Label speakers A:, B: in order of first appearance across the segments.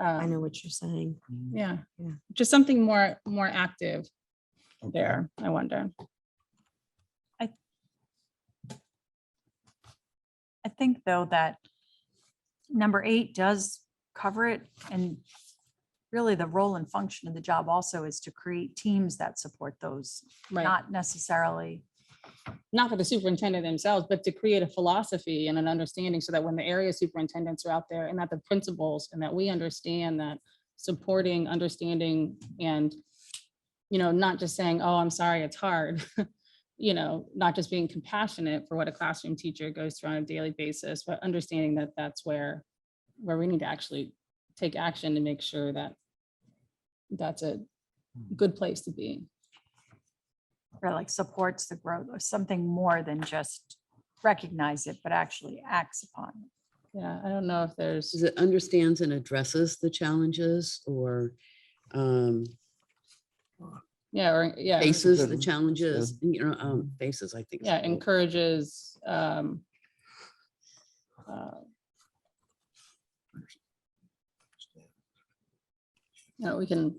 A: I
B: um,
A: know what you're saying.
B: Yeah,
A: Yeah.
B: just something more, more active
C: Okay.
B: there, I wonder.
D: I think though that number eight does cover it and really the role and function of the job also is to create teams that support those,
B: Right,
D: not necessarily.
B: not for the superintendent themselves, but to create a philosophy and an understanding so that when the area superintendents are out there and that the principals and that we understand that supporting, understanding and, you know, not just saying, oh, I'm sorry, it's hard. You know, not just being compassionate for what a classroom teacher goes through on a daily basis, but understanding that that's where, where we need to actually take action to make sure that that's a good place to be.
D: or like supports the growth or something more than just recognize it, but actually acts upon it.
B: Yeah, I don't know if there's.
E: Is it understands and addresses the challenges or um,
B: Yeah, or, yeah, or-
E: faces the
C: Mhm.
E: challenges, you know, um, faces, I think. is
B: yeah,
E: the word.
B: encourages, um, uh, you know, we can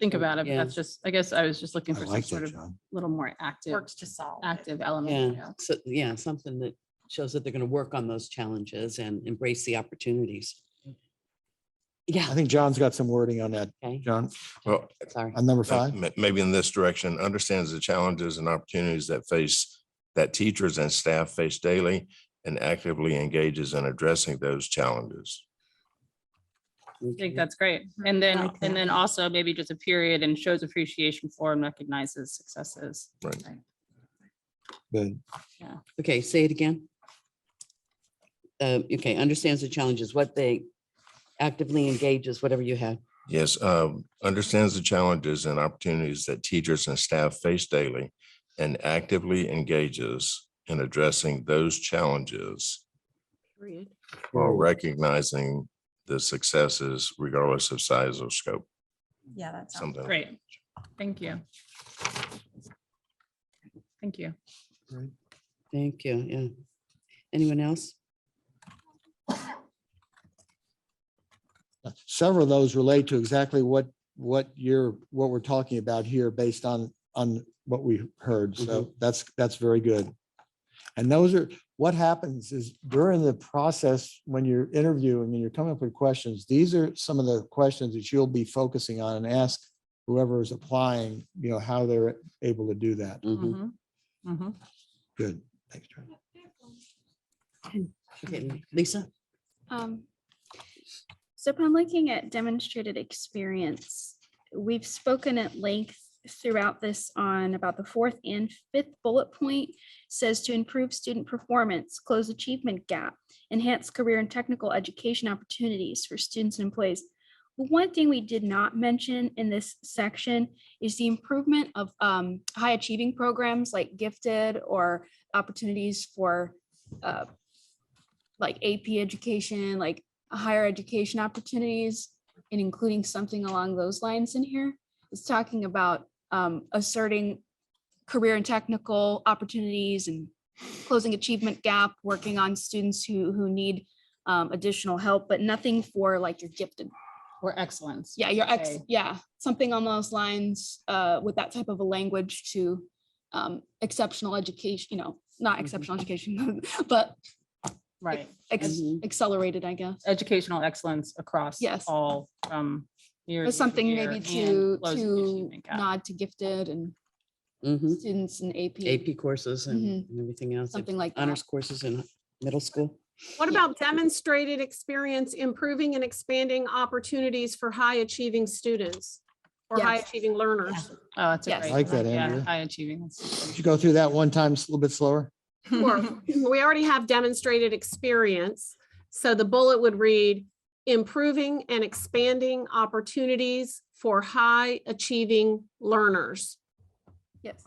B: think about it, but
E: Yeah.
B: that's just, I guess I was just looking
C: I
B: for some
C: like
B: sort
C: that,
B: of
C: John.
B: little more active,
D: Works to solve. it.
B: active element.
E: Yeah, so, yeah, something that shows that they're going to work on those challenges and embrace the opportunities.
C: I
E: Yeah,
C: think John's got some wording on that,
E: okay,
C: John,
F: Well,
E: sorry.
C: on number
F: uh,
C: five.
F: ma- maybe in this direction, understands the challenges and opportunities that face, that teachers and staff face daily and actively engages in addressing those challenges.
B: I think that's great. And then,
A: like that.
B: and then also maybe just a period and shows appreciation for and recognizes successes.
C: Good.
E: Okay, say it again. Uh, Okay, understands the challenges, what they actively engages, whatever you had.
F: Yes, um, understands the challenges and opportunities that teachers and staff face daily and actively engages in addressing those challenges
A: Period.
F: while recognizing the successes regardless of size or scope,
D: Yeah, that sounds
F: something.
B: Great. Thank you. Thank you.
E: Thank you, yeah. Anyone else?
C: Several of those relate to exactly what, what you're, what we're talking about here based on, on what we heard. So that's, that's very good. And those are, what happens is during the process, when you're interviewing and you're coming up with questions, these are some of the questions that you'll be focusing on and ask whoever is applying, you know, how they're able to do that.
E: Mhm.
B: Mhm. Mhm.
C: Good. Thanks, John.
E: Okay, Lisa?
G: Um, so if I'm looking at demonstrated experience, we've spoken at length throughout this on about the fourth and fifth bullet point says to improve student performance, close achievement gap, enhance career and technical education opportunities for students and employees. One thing we did not mention in this section is the improvement of um, high achieving programs like gifted or opportunities for uh, like AP education, like higher education opportunities, and including something along those lines in here. It's talking about um, asserting career and technical opportunities and closing achievement gap, working on students who who need um, additional help, but nothing for like your gifted.
B: Or excellence.
G: Yeah, your ex.
B: Okay.
G: Yeah, something on those lines uh, with that type of a language to um, exceptional education. You know, not
E: Mhm.
G: exceptional education, but
B: Right.
G: ex-
E: Mhm.
G: accelerated, I guess.
B: educational excellence across
G: Yes.
B: all from year
G: But
B: to
G: something
B: year
G: maybe
B: and
G: to,
B: close the
G: to
B: achievement gap.
G: nod to gifted and
E: Mhm.
G: students and AP,
E: AP courses and and everything else. if
G: Mm. Mm-hmm. something like that.
E: Honors courses in middle school.
H: What
G: Yeah.
H: about demonstrated experience improving and expanding opportunities for high achieving students? Or high
G: Yes.
H: achieving learners?
B: Oh, that's a
G: Yes.
B: great.
C: Like that,
B: yeah,
C: Andrea.
B: High achieving. that's-
C: Could you go through that one time, just a little bit slower?
H: Or, we already have demonstrated experience. So the bullet would read, improving and expanding opportunities for high achieving learners.
G: Yes.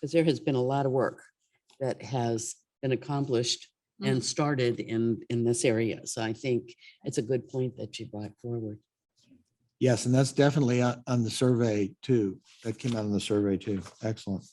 E: Because there has been a lot of work that has been accomplished
G: Mm-hmm.
E: and started in, in this area. So I think it's a good point that you brought forward.
C: uh, Yes, and that's definitely on, on the survey too. That came out on the survey too. Excellent.